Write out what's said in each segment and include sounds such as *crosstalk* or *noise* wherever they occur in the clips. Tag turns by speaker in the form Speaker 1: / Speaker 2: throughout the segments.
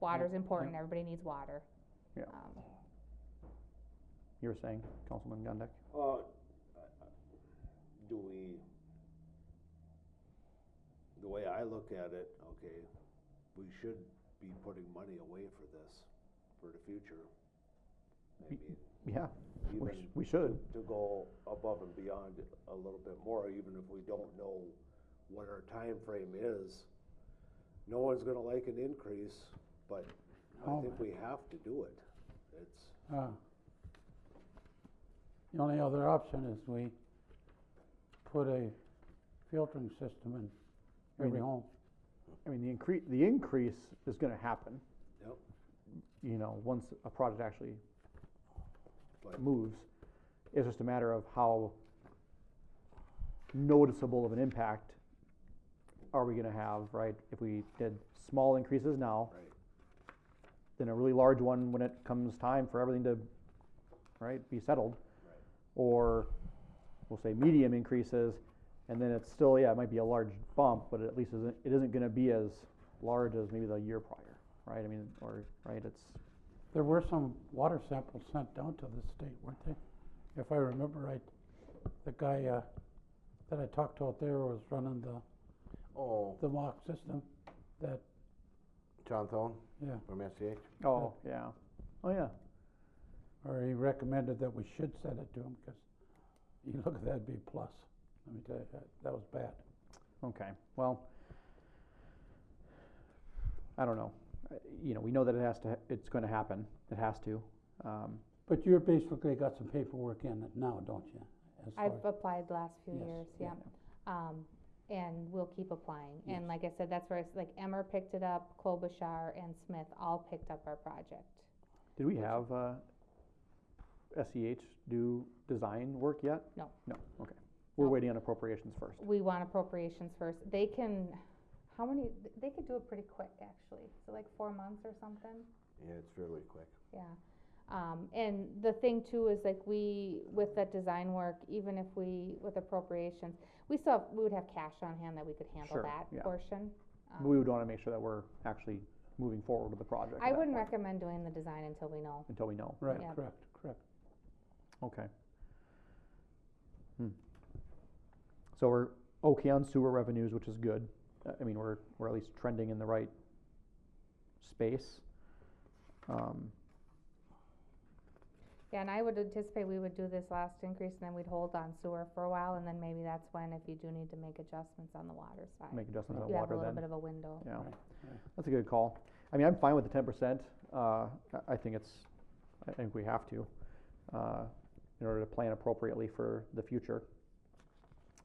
Speaker 1: water's important, everybody needs water.
Speaker 2: Yeah.
Speaker 1: Um,
Speaker 2: You were saying, Councilman Gondek?
Speaker 3: Uh, do we, the way I look at it, okay, we should be putting money away for this, for the future. I
Speaker 2: Be-
Speaker 3: mean,
Speaker 2: Yeah, we, sh-
Speaker 3: even
Speaker 2: we should.
Speaker 3: to go above and beyond a little bit more, even if we don't know what our time frame is. No one's gonna like an increase, but I
Speaker 4: Oh,
Speaker 3: think we have to do it. It's,
Speaker 4: Uh, The only other option is we put a filtering system in every
Speaker 2: Meaning-
Speaker 4: home.
Speaker 2: I mean, the increase, the increase is gonna happen.
Speaker 3: Yep.
Speaker 2: You know, once a product actually
Speaker 3: But-
Speaker 2: moves, it's just a matter of how noticeable of an impact are we gonna have, right? If we did small increases now,
Speaker 3: right,
Speaker 2: then a really large one when it comes time for everything to, right, be settled.
Speaker 3: Right.
Speaker 2: Or we'll say medium increases, and then it's still, yeah, it might be a large bump, but it at least isn't, it isn't gonna be as large as maybe the year prior, right? I mean, or, right, it's,
Speaker 4: There were some water samples sent down to the state, weren't they? If I remember right, the guy uh, that I talked to out there was running the,
Speaker 5: Oh,
Speaker 4: the mock system that,
Speaker 5: John Thone
Speaker 4: yeah,
Speaker 5: from SCH.
Speaker 2: oh, yeah, oh, yeah.
Speaker 4: or he recommended that we should send it to him because you *laughs* look at that, it'd be a plus. Let me tell you, that- that was bad.
Speaker 2: Okay, well, I don't know. Uh, You know, we know that it has to, ha- it's gonna happen, it has to. Um,
Speaker 4: But you're basically got some paperwork in it now, don't you? as far
Speaker 1: I've applied the last few
Speaker 4: Yes,
Speaker 1: years,
Speaker 4: yeah.
Speaker 1: yeah. Um, and we'll keep applying.
Speaker 4: Yes.
Speaker 1: And like I said, that's where, it's like Emmer picked it up, Klobuchar and Smith all picked up our project.
Speaker 2: Did we have, uh, SEH do design work yet?
Speaker 1: No.
Speaker 2: No, okay. We're
Speaker 1: No.
Speaker 2: waiting on appropriations first.
Speaker 1: We want appropriations first. They can, how many, they could do it pretty quick, actually. So like four months or something?
Speaker 5: Yeah, it's really quick.
Speaker 1: Yeah, um, and the thing too is like we, with that design work, even if we, with appropriations, we still, have- we would have cash on hand that we could handle
Speaker 2: Sure,
Speaker 1: that
Speaker 2: yeah.
Speaker 1: portion. Um,
Speaker 2: But We would wanna make sure that we're actually moving forward with the project. at
Speaker 1: I
Speaker 2: that
Speaker 1: wouldn't
Speaker 2: point,
Speaker 1: recommend doing the design until we know.
Speaker 2: Until we know,
Speaker 4: Right,
Speaker 1: Yeah.
Speaker 4: correct, correct.
Speaker 2: okay. Hmm. So we're okay on sewer revenues, which is good. Uh, I mean, we're, we're at least trending in the right space. Um,
Speaker 1: Yeah, and I would anticipate we would do this last increase and then we'd hold on sewer for a while and then maybe that's when if you do need to make adjustments on the water side.
Speaker 2: make adjustments on
Speaker 1: You have a
Speaker 2: water
Speaker 1: little
Speaker 2: then.
Speaker 1: bit of a window.
Speaker 2: Yeah,
Speaker 4: Right, right.
Speaker 2: that's a good call. I mean, I'm fine with the ten percent. Uh, I, I think it's, I think we have to, uh, in order to plan appropriately for the future.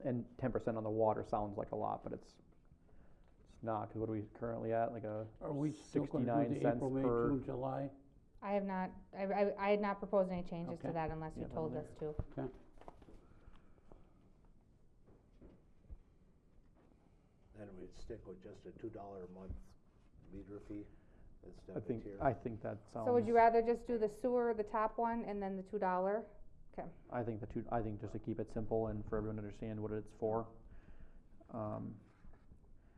Speaker 2: And ten percent on the water sounds like a lot, but it's, it's not, cause what are we currently at, like a
Speaker 4: Are we still gonna do
Speaker 2: 69
Speaker 4: the
Speaker 2: cents
Speaker 4: April, May,
Speaker 2: per-
Speaker 4: June, July?
Speaker 1: I have not, I, I, I had not proposed any changes to
Speaker 4: Okay.
Speaker 1: that unless you
Speaker 2: Yeah,
Speaker 1: told
Speaker 4: there.
Speaker 1: us to.
Speaker 3: then we'd stick with just a two dollar a month meter fee instead
Speaker 2: I
Speaker 3: of a
Speaker 2: think,
Speaker 3: tier.
Speaker 2: I think that sounds.
Speaker 1: So would you rather just do the sewer, the top one, and then the two dollar?
Speaker 2: I think the two, I think just to keep it simple and for everyone to understand what it's for. Um,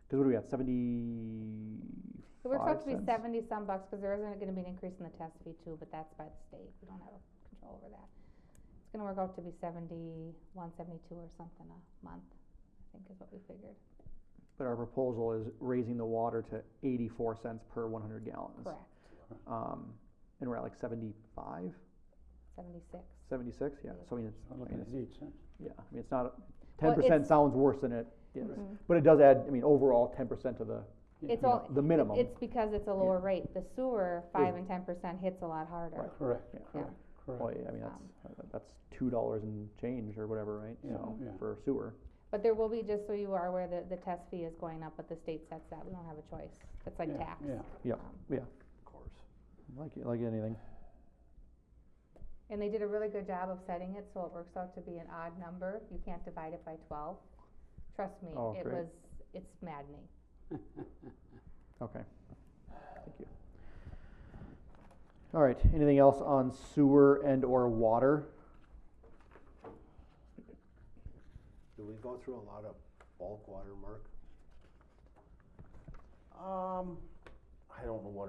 Speaker 2: cause what do we got, seventy-five
Speaker 1: It works out to be
Speaker 2: cents?
Speaker 1: seventy some bucks, cause there isn't gonna be an increase in the test fee too, but that's by the state, we don't have control over that. It's gonna work out to be seventy-one, seventy-two or something a month, I think is what we figured.
Speaker 2: But our proposal is raising the water to eighty-four cents per one hundred gallons.
Speaker 1: Correct,
Speaker 2: Um, and we're at like seventy-five,
Speaker 1: seventy-six.
Speaker 2: seventy-six, yeah, so I mean, it's,
Speaker 4: So
Speaker 2: I
Speaker 4: look
Speaker 2: mean,
Speaker 4: at
Speaker 2: it's,
Speaker 4: eight cents.
Speaker 2: yeah, I mean, it's not,
Speaker 1: Well,
Speaker 2: ten percent
Speaker 1: it's-
Speaker 2: sounds worse than it is.
Speaker 1: Mhm.
Speaker 2: But it does add, I mean, overall, ten percent to the,
Speaker 4: Yeah.
Speaker 1: It's
Speaker 2: you know,
Speaker 1: all,
Speaker 2: the minimum.
Speaker 1: it's because it's a lower rate, the sewer, five and ten percent hits a lot harder.
Speaker 4: Correct,
Speaker 2: Yeah.
Speaker 4: correct,
Speaker 2: Well,
Speaker 4: correct.
Speaker 2: yeah, I mean, that's,
Speaker 1: Um,
Speaker 2: uh, that's two dollars and change or whatever, right?
Speaker 4: Yeah,
Speaker 2: So,
Speaker 4: yeah.
Speaker 2: for sewer,
Speaker 1: But there will be, just so you are aware, the, the test fee is going up, but the state sets that, we don't have a choice, it's like
Speaker 4: Yeah,
Speaker 1: tax.
Speaker 4: yeah.
Speaker 2: Yeah.
Speaker 1: Um,
Speaker 3: Of course.
Speaker 2: like, like anything.
Speaker 1: And they did a really good job of setting it, so it works out to be an odd number, you can't divide it by twelve. Trust me,
Speaker 2: Oh,
Speaker 1: it
Speaker 2: great.
Speaker 1: was, it's maddening.
Speaker 2: Okay, thank you. All right, anything else on sewer and or water?
Speaker 3: Do we go through a lot of bulk water, Mark?
Speaker 5: Um, I don't know what